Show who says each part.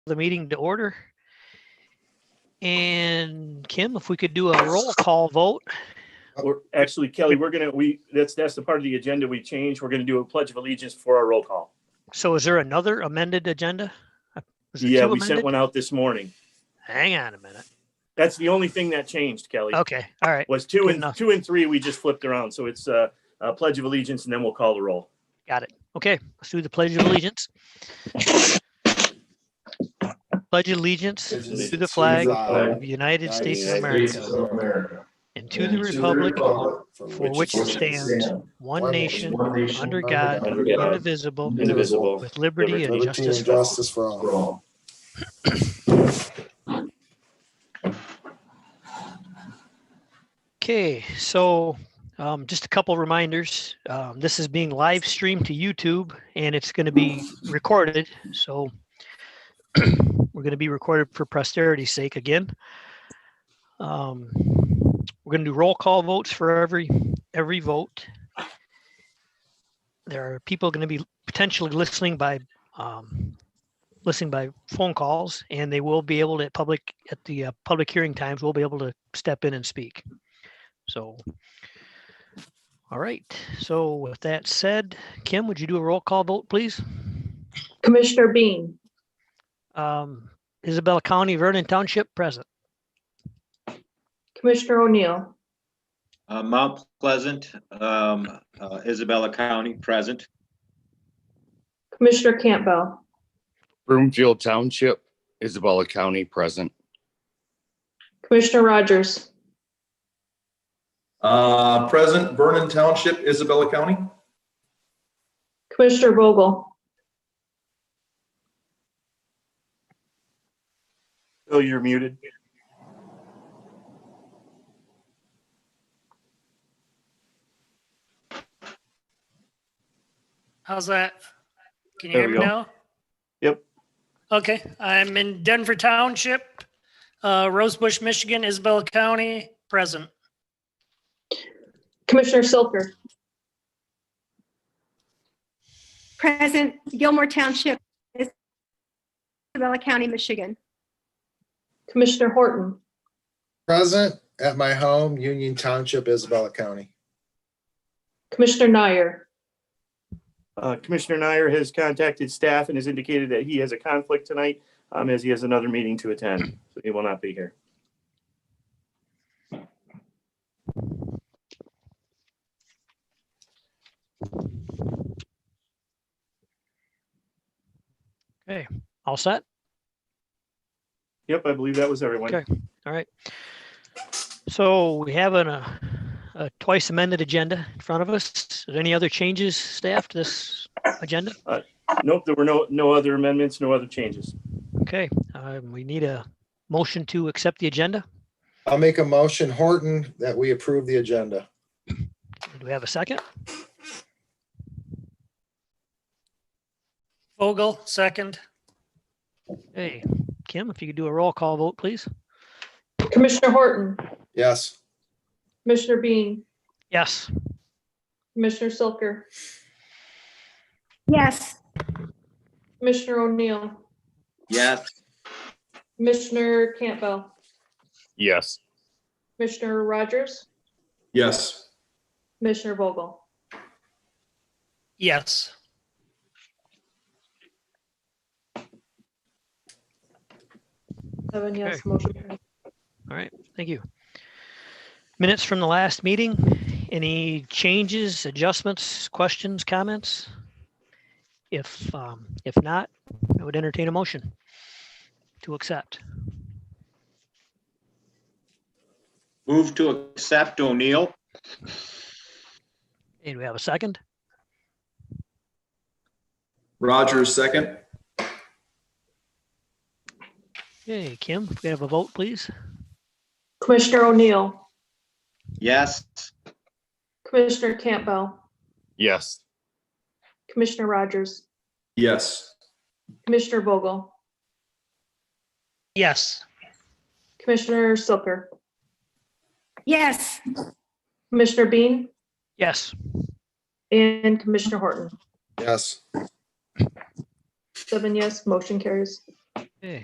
Speaker 1: the meeting to order. And Kim, if we could do a roll call vote,
Speaker 2: We're, actually, Kelly, we're gonna, we, that's, that's the part of the agenda we changed. We're gonna do a pledge of allegiance for our roll call.
Speaker 1: so is there another amended agenda? Is there
Speaker 2: Yeah,
Speaker 1: two
Speaker 2: we sent
Speaker 1: amended?
Speaker 2: one out this morning.
Speaker 1: Hang on a minute.
Speaker 2: That's the only thing that changed, Kelly,
Speaker 1: Okay, all right,
Speaker 2: was two
Speaker 1: good
Speaker 2: and,
Speaker 1: enough.
Speaker 2: two and three, we just flipped around. So it's uh a pledge of allegiance and then we'll call the roll.
Speaker 1: got it. Okay, let's do the pledge of allegiance. Pledge allegiance to the flag of the United States of America
Speaker 3: America.
Speaker 1: and to the republic for which it stands, one nation, under God,
Speaker 2: under God,
Speaker 1: indivisible,
Speaker 2: Indivisible.
Speaker 1: with liberty and
Speaker 3: Liberty
Speaker 1: justice
Speaker 3: and
Speaker 1: for all.
Speaker 3: justice for all.
Speaker 4: Roll.
Speaker 1: Okay, so um, just a couple reminders. Um, this is being live streamed to YouTube and it's going to be recorded. So we're going to be recorded for posterity's sake again. Um, we're going to do roll call votes for every every vote. There are people going to be potentially listening by um, listening by phone calls, and they will be able to at public at the uh, public hearing times. We'll be able to step in and speak. So, all right. So with that said, Kim, would you do a roll call vote, please?
Speaker 5: Commissioner Bean,
Speaker 1: Um, Isabella County, Vernon Township, present.
Speaker 5: Commissioner O'Neill,
Speaker 6: Uh, Mount Pleasant, um, uh, Isabella County, present.
Speaker 5: Commissioner Campbell,
Speaker 7: Broomfield Township, Isabella County, present.
Speaker 5: Commissioner Rogers,
Speaker 4: Uh, present Vernon Township, Isabella County.
Speaker 5: Commissioner Vogel,
Speaker 2: Bill, you're muted.
Speaker 8: How's that? Can you
Speaker 6: There
Speaker 8: hear me
Speaker 6: we go.
Speaker 8: now?
Speaker 2: Yep.
Speaker 8: Okay, I'm in Denver Township, uh, Rosebush, Michigan, Isabella County, present.
Speaker 5: Commissioner Silker,
Speaker 9: Present Gilmore Township, Isabella County, Michigan.
Speaker 5: Commissioner Horton,
Speaker 3: Present at my home, Union Township, Isabella County.
Speaker 5: Commissioner Nyer,
Speaker 2: Uh, Commissioner Nyer has contacted staff and has indicated that he has a conflict tonight, um, as he has another meeting to attend. So he will not be here.
Speaker 1: All set?
Speaker 2: Yep, I believe that was everyone.
Speaker 1: Okay. All right. So we have an, uh, a twice amended agenda in front of us. Are there Any other changes, staff, to this agenda?
Speaker 2: Nope, there were no, no other amendments, no other changes.
Speaker 1: Okay, um, we need a motion to accept the agenda.
Speaker 3: I'll make a motion, Horton, that we approve the agenda.
Speaker 1: Do we have a second?
Speaker 8: Vogel, second.
Speaker 1: Hey, Kim, if you could do a roll call vote, please.
Speaker 5: Commissioner Horton,
Speaker 3: Yes.
Speaker 5: Commissioner Bean,
Speaker 1: Yes.
Speaker 5: Commissioner Silker,
Speaker 9: Yes.
Speaker 5: Commissioner O'Neill,
Speaker 6: Yes,
Speaker 5: Commissioner Campbell,
Speaker 7: Yes.
Speaker 5: Commissioner Rogers,
Speaker 4: Yes.
Speaker 5: Commissioner Vogel,
Speaker 8: Yes.
Speaker 5: seven yes, motion carries.
Speaker 1: Thank you. Minutes from the last meeting. Any changes, adjustments, questions, comments? If, um, if not, I would entertain a motion to accept.
Speaker 6: move to accept O'Neill.
Speaker 1: And we have a second.
Speaker 4: Rogers, second.
Speaker 1: Okay, Kim, if we have a vote, please.
Speaker 5: Commissioner O'Neill,
Speaker 6: Yes,
Speaker 5: Commissioner Campbell,
Speaker 7: Yes.
Speaker 5: Commissioner Rogers,
Speaker 4: Yes.
Speaker 5: Commissioner Vogel,
Speaker 8: Yes.
Speaker 5: Commissioner Silker,
Speaker 9: Yes.
Speaker 5: Commissioner Bean,
Speaker 1: Yes.
Speaker 5: and Commissioner Horton.
Speaker 3: Yes.
Speaker 5: Seven yes, motion carries.
Speaker 1: Okay.